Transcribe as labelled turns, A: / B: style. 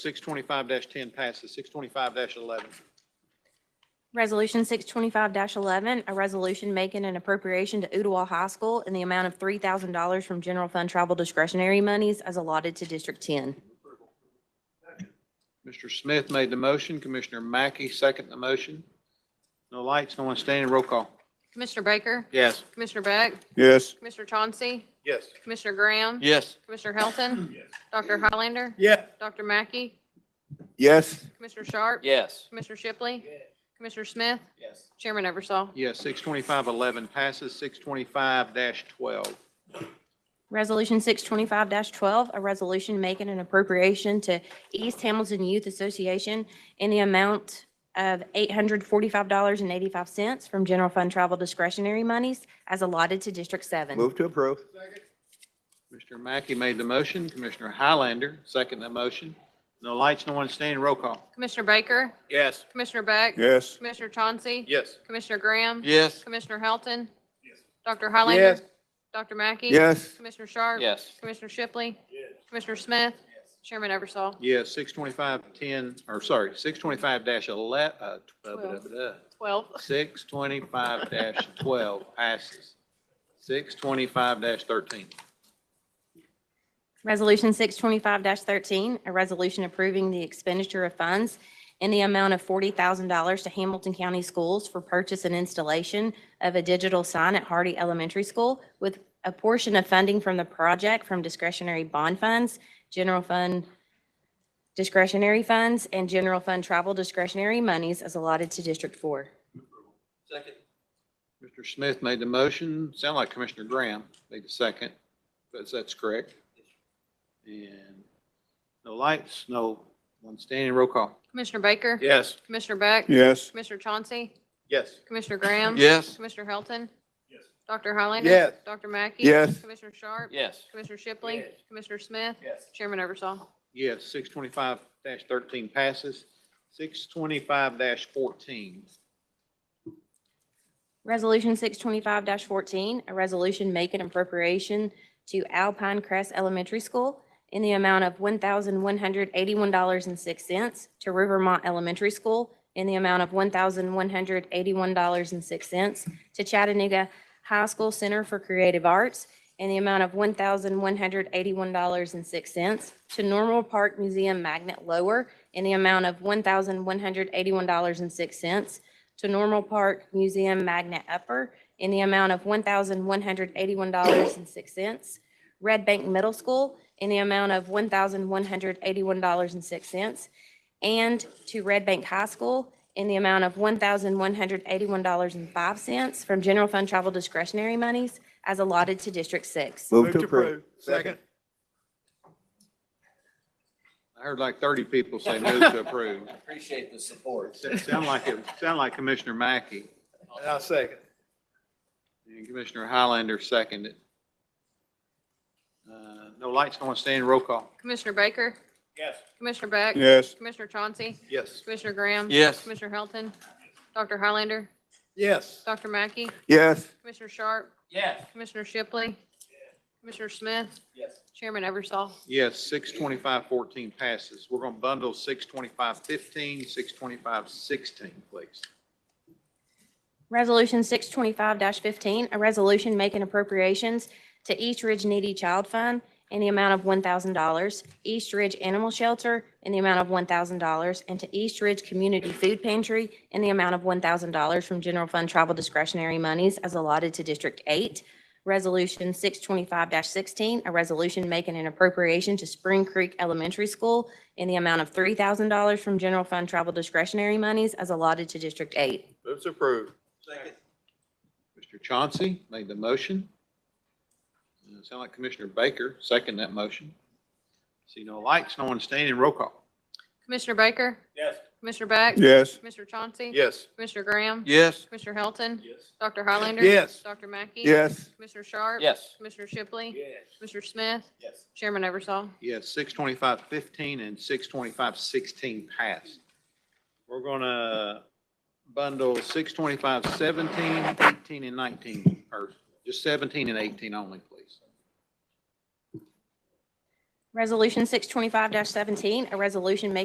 A: 625-10 passes. 625-11.
B: Resolution six twenty-five eleven, a resolution making an appropriation to Ottawa High School in the amount of three thousand dollars from general fund travel discretionary monies as allotted to District Ten.
A: Mr. Smith made the motion. Commissioner Mackey second the motion. No lights, no one standing. Roll call.
C: Commissioner Baker?
A: Yes.
C: Commissioner Beck?
D: yes,
C: Commissioner Chauncey?
A: Yes.
C: Commissioner Graham?
A: Yes.
C: Commissioner Helton? Dr. Highlander?
A: Yeah.
C: Dr. Mackey?
D: yes,
C: Commissioner Sharp?
E: Yes.
C: Commissioner Shipley? Commissioner Smith?
E: Yes.
C: Chairman Eversol.
A: Yes, 625-11 passes. 625-12.
B: Resolution six twenty-five twelve, a resolution making an appropriation to East Hamilton Youth Association in the amount of eight hundred forty-five dollars and eighty-five cents from general fund travel discretionary monies as allotted to District Seven.
D: move to approve,
A: Mr. Mackey made the motion. Commissioner Highlander second the motion. No lights, no one standing. Roll call.
C: Commissioner Baker?
A: Yes.
C: Commissioner Beck?
D: yes,
C: Commissioner Chauncey?
A: Yes.
C: Commissioner Graham?
A: Yes.
C: Commissioner Helton? Dr. Highlander? Dr. Mackey?
D: yes,
C: Commissioner Sharp?
E: Yes.
C: Commissioner Shipley? Commissioner Smith? Chairman Eversol.
A: Yes, 625-10, or sorry, 625-11, uh,
C: Twelve.
A: 12. 625-12 passes. 625-13.
B: Resolution six twenty-five thirteen, a resolution approving the expenditure of funds in the amount of forty thousand dollars to Hamilton County Schools for purchase and installation of a digital sign at Hardy Elementary School with a portion of funding from the project from discretionary bond funds, general fund discretionary funds, and general fund travel discretionary monies as allotted to District Four.
E: Second.
A: Mr. Smith made the motion. Sound like Commissioner Graham made the second, but that's correct. And no lights, no one standing. Roll call.
C: Commissioner Baker?
A: Yes.
C: Commissioner Beck?
D: yes,
C: Commissioner Chauncey?
A: Yes.
C: Commissioner Graham?
A: Yes.
C: Commissioner Helton? Dr. Highlander?
A: Yes.
C: Dr. Mackey?
D: Yes.
C: Commissioner Sharp?
E: Yes.
C: Commissioner Shipley? Commissioner Smith?
E: Yes.
C: Chairman Eversol.
A: Yes, six twenty-five thirteen passes. Six twenty-five fourteen.
B: Resolution six twenty-five fourteen, a resolution making appropriation to Alpine Crest Elementary School in the amount of one thousand one hundred eighty-one dollars and six cents to Rivermont Elementary School in the amount of one thousand one hundred eighty-one dollars and six cents to Chattanooga High School Center for Creative Arts in the amount of one thousand one hundred eighty-one dollars and six cents to Normal Park Museum Magnet Lower in the amount of one thousand one hundred eighty-one dollars and six cents to Normal Park Museum Magnet Upper in the amount of one thousand one hundred eighty-one dollars and six cents. Red Bank Middle School in the amount of one thousand one hundred eighty-one dollars and six cents. And to Red Bank High School in the amount of one thousand one hundred eighty-one dollars and five cents from general fund travel discretionary monies as allotted to District Six.
D: move to approve,
A: Second. I heard like thirty people say move to approve.
E: Appreciate the support.
A: Sound like, it. sound like Commissioner Mackey.
F: I'll second.
A: And Commissioner Highlander seconded. Uh, No lights, no one standing, roll call.
C: Commissioner Baker?
E: Yes.
C: Commissioner Beck?
D: yes,
C: Commissioner Chauncey?
A: Yes.
C: Commissioner Graham?
E: Yes.
C: Commissioner Helton? Dr. Highlander?
F: Yes.
C: Dr. Mackey?
D: yes,
C: Commissioner Sharp?
E: Yes.
C: Commissioner Shipley? Commissioner Smith?
E: Yes.
C: Chairman Eversol.
A: Yes, six twenty-five fourteen passes. We're going to bundle six twenty-five fifteen, six twenty-five sixteen, please.
B: Resolution six twenty-five fifteen, a resolution making appropriations to East Ridge Needy Child Fund in the amount of one thousand dollars, East Ridge Animal Shelter in the amount of one thousand dollars, and to East Ridge Community Food Pantry in the amount of one thousand dollars from general fund travel discretionary monies as allotted to District Eight. Resolution six twenty-five sixteen, a resolution making an appropriation to Spring Creek Elementary School in the amount of three thousand dollars from general fund travel discretionary monies as allotted to District Eight.
A: Move to approve.
E: Second.
A: Mr. Chauncey made the motion. Uh, Sound like Commissioner Baker seconded that motion. See no lights, no one standing, roll call.
C: Commissioner Baker?
E: Yes.
C: Commissioner Beck?
D: yes,
C: Commissioner Chauncey?
A: Yes.
C: Commissioner Graham?
A: Yes.
C: Commissioner Helton?
E: Yes.
C: Dr. Highlander?
F: Yes.
C: Dr. Mackey?
D: yes,
C: Commissioner Sharp?
E: Yes.
C: Commissioner Shipley?
E: Yes.
C: Commissioner Smith?
E: Yes.
C: Chairman Eversol.
A: Yes, six twenty-five fifteen and six twenty-five sixteen passed. We're gonna bundle six twenty-five seventeen, eighteen, and nineteen, or just seventeen and eighteen only, please.
B: Resolution six twenty-five seventeen, a resolution making